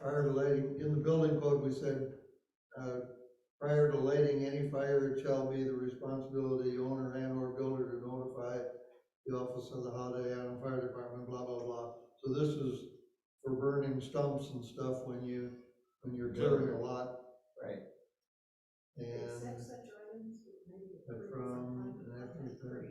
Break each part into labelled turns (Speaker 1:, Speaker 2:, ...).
Speaker 1: prior to lighting, in the building code, we said, uh, prior to lighting any fire, it shall be the responsibility of the owner and or builder to notify the office of the Holiday Island Fire Department, blah, blah, blah. So this is for burning stumps and stuff when you, when you're clearing a lot
Speaker 2: Right.
Speaker 1: and.
Speaker 3: Accept such items maybe
Speaker 1: And
Speaker 3: from
Speaker 1: from, and after that.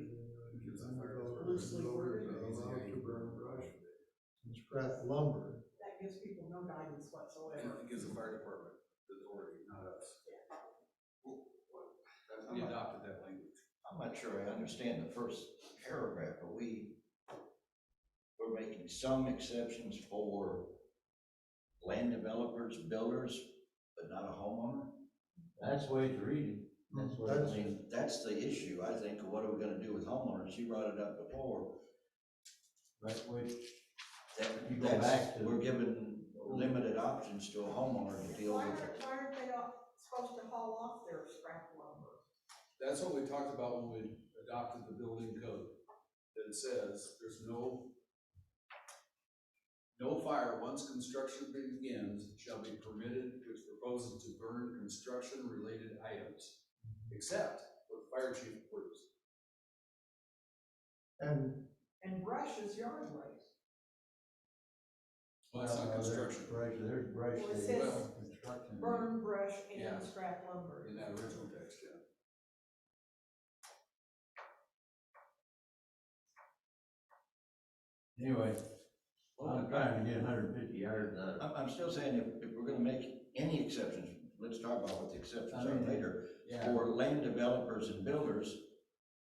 Speaker 2: Gives a fire
Speaker 1: uh,
Speaker 3: Loosely worded.
Speaker 1: builders are allowed to burn brush and scrap lumber.
Speaker 3: That gives people no guidance
Speaker 2: And
Speaker 3: whatsoever.
Speaker 2: it gives the fire department the authority, not us. We
Speaker 4: I'm not-
Speaker 2: adopted that language.
Speaker 4: I'm not sure I understand the first paragraph, but we, we're making some exceptions for land developers, builders, but not a homeowner?
Speaker 5: That's the way it's reading. That's what
Speaker 4: I
Speaker 5: it
Speaker 1: That's-
Speaker 4: mean, that's the issue, I think, of what are we gonna do with homeowners, you brought it up before.
Speaker 5: That's the way,
Speaker 4: That,
Speaker 5: You go
Speaker 4: that's,
Speaker 5: back to-
Speaker 4: we're given limited options to a homeowner to deal
Speaker 3: Why
Speaker 4: with
Speaker 3: aren't,
Speaker 4: it.
Speaker 3: why aren't they all supposed to haul off their scrap lumber?
Speaker 2: That's what we talked about when we adopted the building code. That it says there's no, no fire once construction begins shall be permitted which proposes to burn construction-related items, except what the fire chief orders.
Speaker 1: And.
Speaker 3: And brush is yard waste.
Speaker 2: Well, it's
Speaker 5: Uh,
Speaker 2: not construction.
Speaker 5: Brush, there's brush.
Speaker 3: Well, it
Speaker 5: there.
Speaker 3: says
Speaker 5: Construction.
Speaker 3: Burn brush
Speaker 2: Yeah.
Speaker 3: and scrap lumber.
Speaker 2: In that original text, yeah.
Speaker 5: Anyway, I'm trying to get hundred fifty yards out of it.
Speaker 4: I'm, I'm still saying if, if we're gonna make any exceptions, let's talk about what the exceptions
Speaker 5: I
Speaker 4: are
Speaker 5: mean,
Speaker 4: later. For land developers and builders,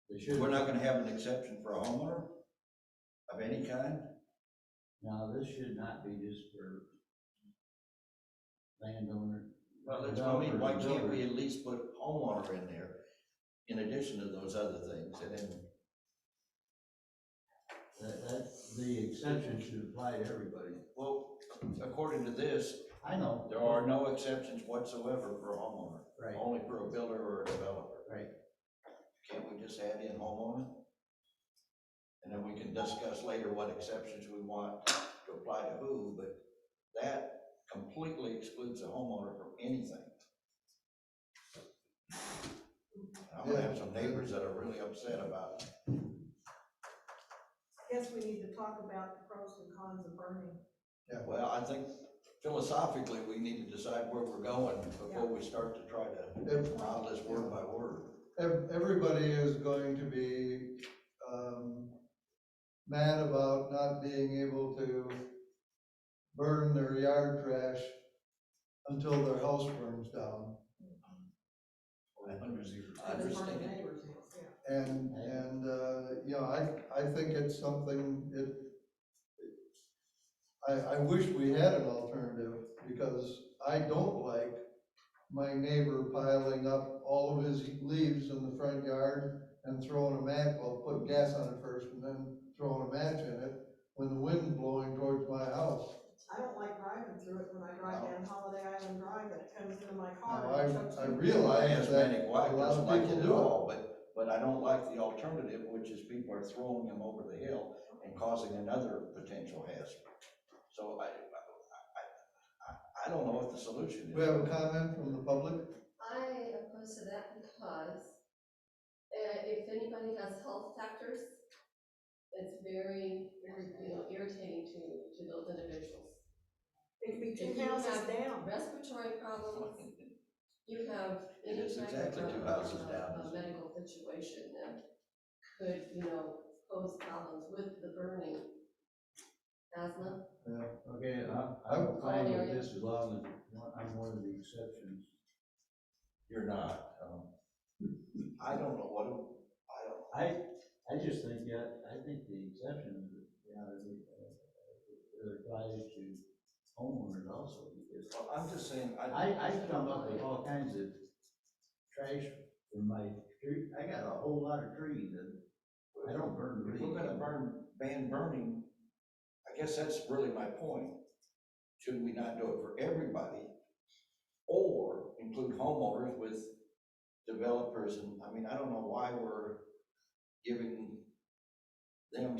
Speaker 5: They should,
Speaker 4: we're not gonna have an exception for a homeowner of any kind?
Speaker 5: now, this should not be just for landowner.
Speaker 4: Well, that's what I mean, why
Speaker 5: Developers
Speaker 4: can't
Speaker 5: and
Speaker 4: we at least put homeowner in there in addition to those other things, and then,
Speaker 5: builders. That, that, the exception should apply to everybody.
Speaker 4: well, according to this,
Speaker 5: I know.
Speaker 4: there are no exceptions whatsoever for a
Speaker 5: Right,
Speaker 4: homeowner, only for a builder or a developer.
Speaker 5: Right.
Speaker 4: Can't we just add in homeowner? And then we can discuss later what exceptions we want to apply to who, but that completely excludes a homeowner from anything. I'm gonna have some neighbors that are really upset about
Speaker 3: I Guess we need to talk about the pros and cons of burning.
Speaker 4: Well, I think philosophically, we need to decide where we're going before we start to try to
Speaker 1: Ev-
Speaker 4: file this word by word.
Speaker 1: ev- Everybody is going to be um, mad about not being able to burn their yard trash until their house burns down.
Speaker 4: I
Speaker 3: Burn the
Speaker 4: understand.
Speaker 3: neighbor's house, yeah.
Speaker 1: And, and, uh, you know, I, I think it's something, it, I, I wish we had an alternative, because I don't like my neighbor piling up all of his leaves in the front yard and throwing a match, well, putting gas on it first and then throwing a match in it when the wind's blowing towards my house.
Speaker 3: I don't like driving through it when I drive down Holiday Island Drive and it comes into my
Speaker 1: Now, I,
Speaker 3: car. and it
Speaker 1: I
Speaker 3: chucks me.
Speaker 4: My
Speaker 1: realize that
Speaker 4: Hispanic
Speaker 1: a
Speaker 4: wife
Speaker 1: lot
Speaker 4: doesn't
Speaker 1: of
Speaker 4: like
Speaker 1: people
Speaker 4: it at
Speaker 1: do it.
Speaker 4: all, but, but I don't like the alternative, which is people are throwing them over the hill and causing another potential hazard. So I, I- I, I, I don't know what the solution is.
Speaker 1: we have a comment from the public?
Speaker 6: I oppose to that because uh, if anybody has health factors, it's very, you know, irritating to, to those individuals.
Speaker 3: It could be
Speaker 6: If
Speaker 3: two
Speaker 6: you
Speaker 3: houses
Speaker 6: have
Speaker 3: down.
Speaker 6: Respiratory problems, you have
Speaker 4: It
Speaker 6: any
Speaker 4: is
Speaker 6: type
Speaker 4: exactly
Speaker 6: of
Speaker 4: two
Speaker 6: a-
Speaker 4: houses
Speaker 6: a,
Speaker 4: down.
Speaker 6: a medical situation that could, you know, pose problems with the burning. Asthma,
Speaker 5: Okay, I,
Speaker 1: I'm
Speaker 5: I'm fine with
Speaker 6: area.
Speaker 5: this as long as one- I'm one of the exceptions.
Speaker 4: You're not, um, I don't know what, I don't,
Speaker 5: I, I just think, yeah, I think the exception, you know, is, uh, it applies to homeowners also, because
Speaker 4: Well, I'm just saying, I,
Speaker 5: I, I come up with all kinds of trash from my tree, I got a whole lot of trees, and I don't burn
Speaker 4: if
Speaker 5: trees.
Speaker 4: we're gonna burn, ban burning, I guess that's really my point. Should we not do it for everybody? Or include homeowners with developers, and, I mean, I don't know why we're giving them